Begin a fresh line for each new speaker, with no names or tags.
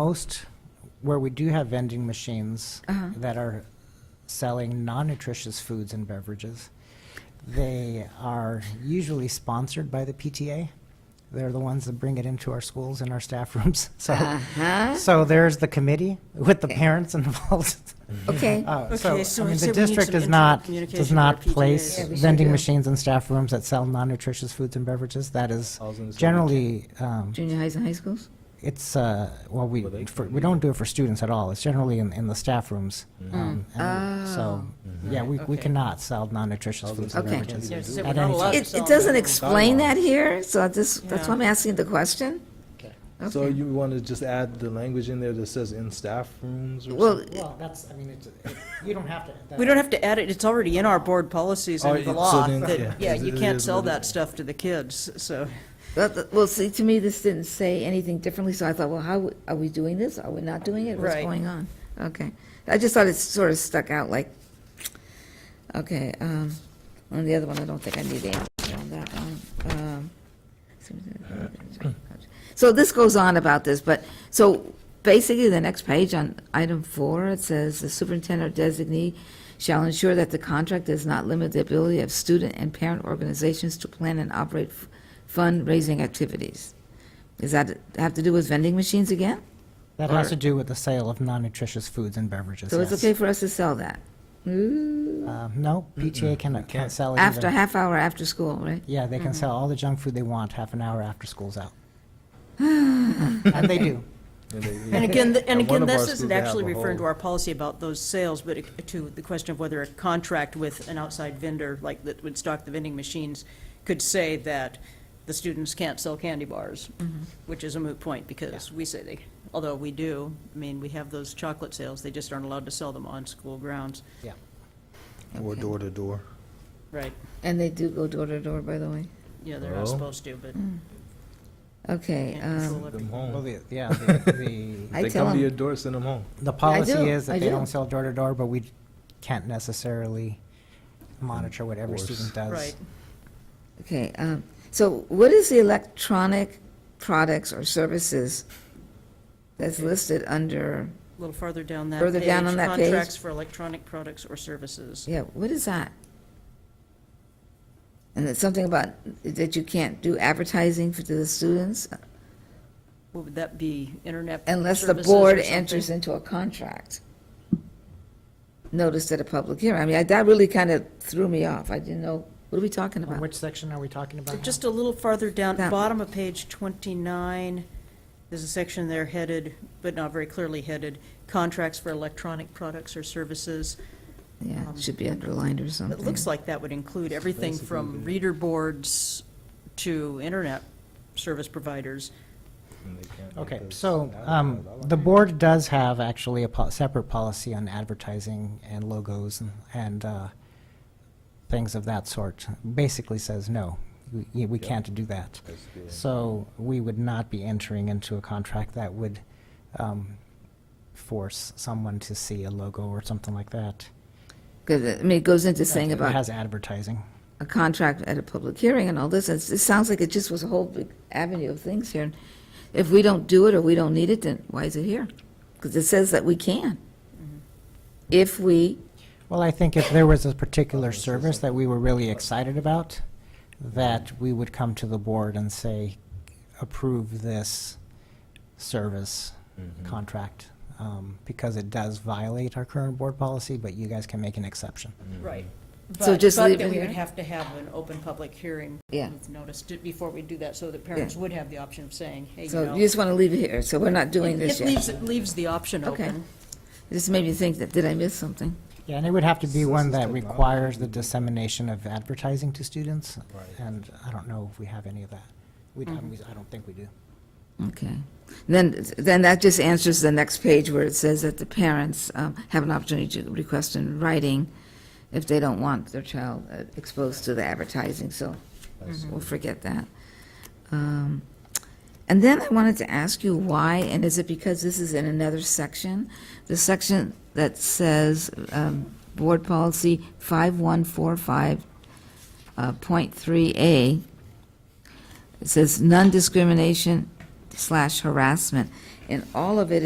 most, where we do have vending machines
Uh-huh.
that are selling non-nutritious foods and beverages, they are usually sponsored by the PTA. They're the ones that bring it into our schools and our staff rooms.
Uh-huh.
So,
Uh-huh.
so there's the committee with the parents involved.
Okay,
Uh,
Okay,
So,
so
I mean,
so
the
we need
district
some
does
internal
not,
communication
does
with
not
our PTAs.
place
Yeah, we should
vending
do.
machines in staff rooms that sell non-nutritious foods and beverages. That is
Thousands of
generally, um,
junior highs and high schools?
it's, uh, well, we,
Well, they
for-
can
we
be-
don't do it for students at all. It's generally in, in the staff rooms. Um, and So, yeah, we, we
Okay.
cannot sell non-nutritious foods and
Okay.
beverages.
Yeah, so
at
we're not
any
allowed
time.
to
It,
sell
it doesn't
them.
explain that here, so I just, that's why I'm asking the question.
So
Okay.
you want to just add the language in there that says in staff rooms or
Well,
something?
Well, that's, I mean, it's, you don't have to.
We don't have to add it, it's already in our board policies
Oh,
and the
it- so
law,
then- yeah.
that, yeah,
It
you
is
can't
what
sell
it
that
is.
stuff to the kids, so.
Well, th- Well, see, to me, this didn't say anything differently, so I thought, well, how, w- are we doing this? Are we not doing it? What's
Right.
going on? Okay. I just thought it sort of stuck out like, okay, um, on the other one, I don't think I need the answer on that one. Um, So this goes on about this, but, so basically, the next page on item four, it says, "The superintendent or designee shall ensure that the contract does not limit the ability of student and parent organizations to plan and operate f- fundraising activities." Does that have to do with vending machines again?
That has to do with the sale of non-nutritious foods and beverages,
So it's
yes.
okay for us to sell that? Ooh.
Uh, No, PTA cannot, can't sell it
After,
either.
half hour after school, right?
Yeah, they can sell all the junk food they want half an hour after school's out. And they do.
And they-
And again, th- and
At
again,
one of our
this
schools,
isn't
they have
actually
a
referring to
whole-
our policy about those sales, but it- to the question of whether a contract with an outside vendor, like that would stock the vending machines, could say that the students can't sell candy bars, which is a moot point, because we say they, although we do, I mean, we have those chocolate sales, they just aren't allowed to sell them on school grounds,
Yeah.
Or
Okay.
door to door.
right?
And they do go door to door, by the way.
Yeah, they're not
Well.
supposed to, but
Hmm. Okay,
can't
um,
control it.
Them
Well,
home.
the, yeah, the, the-
I
They
tell
come to your
them,
door, send them home.
the policy
do,
is
I
that they
do.
don't sell door to door, but we can't necessarily monitor what every
Enforce.
student does.
Right.
okay, um, so what is the electronic products or services that's listed under,
A little farther down that page.
Further down on that page?
Contracts for electronic products or services.
yeah, what is that? And it's something about that you can't do advertising for to the students
What Would that be internet
unless the
services or
board
something?
enters into a contract. Notice at a public hearing, I mean, I- that really kind of threw me off, I didn't know, what are we talking
On
about?
Which section are we talking about?
So
now?
Just a little farther down,
That-
bottom of page 29, there's a section there headed, but not very clearly headed, contracts for electronic products or services.
Yeah, it should be underlined or something.
It looks like that would include everything from reader boards to internet service providers.
and they can't
Okay,
because-
so
I don't
um,
know, I
the
like-
board does have actually a po- separate policy on advertising and logos and- and uh, things of that sort. Basically says, no, we- y- we can't do that.
That's good.
So we would not be entering into a contract that would um, force someone to see a logo or something like that.
Because, I mean, it goes into saying
It
about
has advertising.
a contract at a public hearing and all this, it's, it sounds like it just was a whole big avenue of things here. And If we don't do it or we don't need it, then why is it here? Because it says that we can. If we,
Well, I think if there was a particular service that we were really excited about, that we would come to the board and say, approve this service
Mm-hmm.
contract, um, because it does violate our current board policy, but you guys can make an exception.
Mm-hmm.
Right.
So
But-
just leave it
But that we
here?
would have to have an open public hearing.
Yeah.
with Notice to- before we do that, so that parents would have the option of saying, hey, you
so
know.
you just want to leave it here, so we're not doing
It-
this
It leaves,
yet.
it leaves the option
Okay.
open.
This made me think that, did I miss something?
Yeah, and it would have to be
This
one
is
that
technology.
requires the dissemination of advertising to students,
Right.
and I don't know if we have any of that. We, I
Mm-hmm.
I don't think we do.
Okay. Then, then that just answers the next page where it says that the parents um, have an opportunity to request in writing if they don't want their child uh, exposed to the advertising, so we'll forget that. Um, And then I wanted to ask you why, and is it because this is in another section? The section that says um, Board Policy uh, 5145.3A, it says non-discrimination slash harassment. And all of it